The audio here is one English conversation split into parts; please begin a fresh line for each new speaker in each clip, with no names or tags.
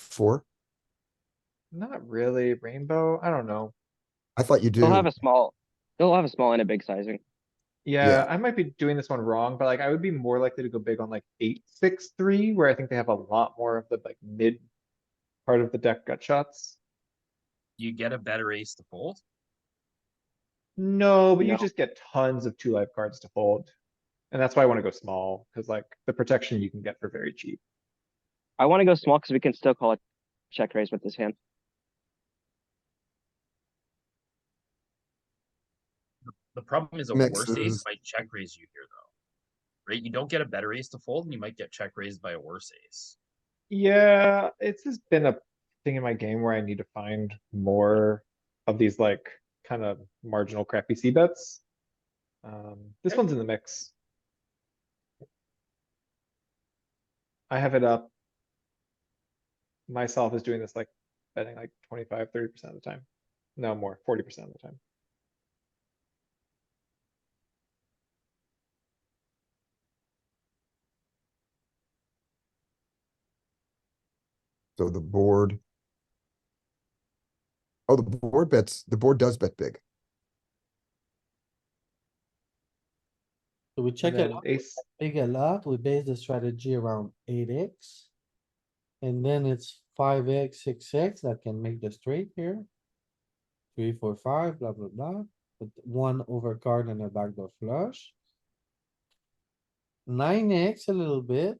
four?
Not really rainbow. I don't know.
I thought you do.
They'll have a small, they'll have a small and a big sizing.
Yeah.
Yeah, I might be doing this one wrong, but like I would be more likely to go big on like eight, six, three, where I think they have a lot more of the like mid part of the deck gut shots.
You get a better ace to fold.
No, but you
No.
just get tons of two life cards to fold. And that's why I wanna go small, cuz like the protection you can get for very cheap.
I wanna go small because we can still call it check raise with this hand.
The problem is a
Makes
worse ace
sense.
might check raise you here though. Right? You don't get a better ace to fold and you might get check raised by a worse ace.
Yeah, it's just been a thing in my game where I need to find more of these like kind of marginal crappy C bets. Um, this one's in the mix. I have it up. Myself is doing this like betting like 25, 30 percent of the time. No more, forty percent of the time.
So the board. Oh, the board bets, the board does bet big.
So we check
And
it
then
out, we
ace,
big a lot, we base the strategy around eight X. And then it's five X, six X that can make the straight here. Three, four, five, blah, blah, blah, with one overcard and a backdoor flush. Nine X a little bit.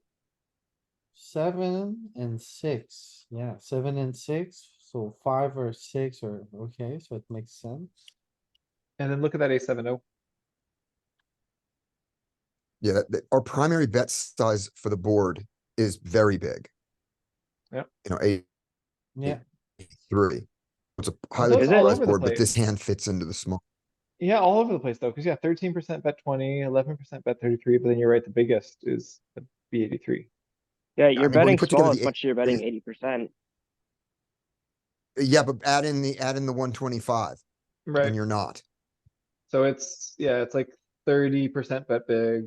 Seven and six, yeah, seven and six, so five or six or, okay, so it makes sense.
and then look at that ace seven oh.
Yeah, that- that- our primary bet size for the board is very big.
Yep.
You know, eight,
Yeah,
three. It's a
those
highly
are all
polarized
over the
board, but
place.
this hand fits into the small.
Yeah, all over the place though, because yeah, thirteen percent bet 20, 11 percent bet thirty-three, but then you're right, the biggest is the B eighty-three.
Yeah,
mean,
you're
when you
betting
put together the
small as
eight-
much as you're betting eighty percent.
Yeah, but add in the, add in the one twenty-five
Right.
and you're not.
So it's, yeah, it's like thirty percent bet big,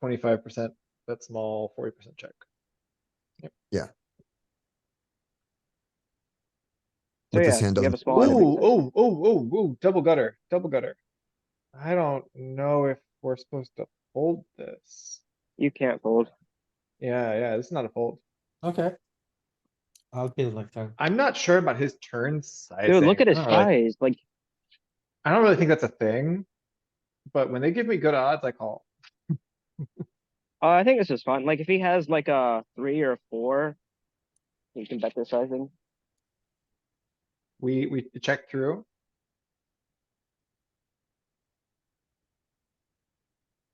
twenty-five percent bet small, forty percent check. Yep.
Yeah.
So
But this
yeah,
hand
you have a
doesn't-
small
Oh,
and a big sizing.
oh, oh, oh, oh, double gutter, double gutter. I don't know if we're supposed to fold this.
You can't fold.
Yeah, yeah, this is not a fold.
okay. I'll be like that.
I'm not sure about his turn sizing.
Dude, look at his
I don't really-
size, like,
I don't really think that's a thing. But when they give me good odds, I call.
uh, I think this is fun. Like, if he has like a three or a four, you can bet this sizing.
We, we check through.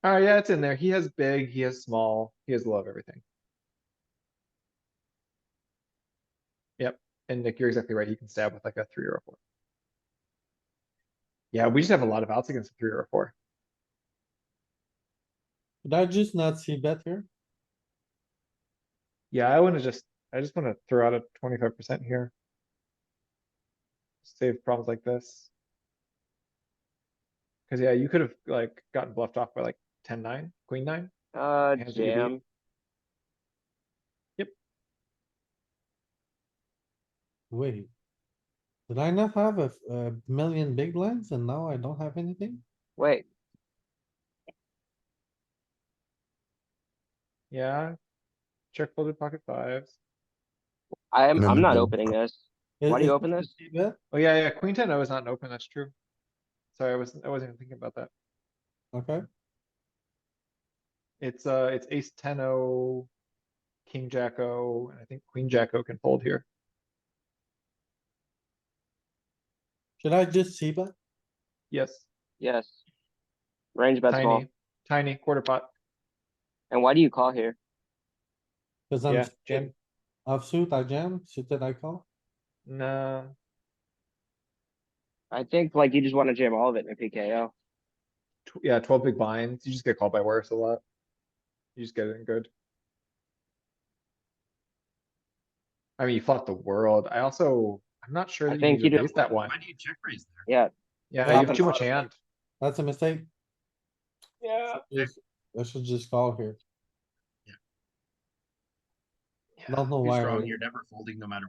Alright, Oh, yeah, it's in there. He has big, he has small, he has low of everything. Yep, and Nick, you're exactly right. He can stab with like a three or a four. Yeah, we just have a lot of outs against a three or a four.
Did I just not see bet here?
Yeah, I wanna just, I just wanna throw out a twenty-five percent here. Save problems like this. Cause yeah, you could have like gotten bluffed off by like ten nine, queen nine.
Uh,
Hands that you beat.
jam.
Wait. Did I not have a, a million big blinds and now I don't have anything?
Wait,
Yeah. Check folded pocket fives.
I'm,
No,
I'm not
no.
opening this.
Is-
Why do you
is
open
it a
this?
three bet?
Oh yeah, yeah, queen ten O is not open, that's true. Sorry, I wasn't, I wasn't even thinking about that.
Okay,
It's uh, it's ace ten O, king jack O, and I think queen jack O can fold here.
should I just see bet?
Yes,
Yes. Range bet small.
tiny, tiny quarter pot.
And why do you call here?
Cause I'm.
Yeah,
suited.
jam.
Offsuit, I jam, suited, I call.
Nah,
I think like you just wanna jam all of it in a PKO.
tw- yeah, twelve big blinds. You just get called by worse a lot. You just get it in good. I mean, you fought the world. I also, I'm not sure
I
that you
think
need
you
to
do-
raise that one.
Why do you check raise there?
Yeah.
Yeah,
Flop
you have
and
too much
flop.
hand.
That's a mistake.
Yeah.
Just- I should just call here.
Yeah.
Don't know
Too
why. I
strong,
raised.
you're never folding no matter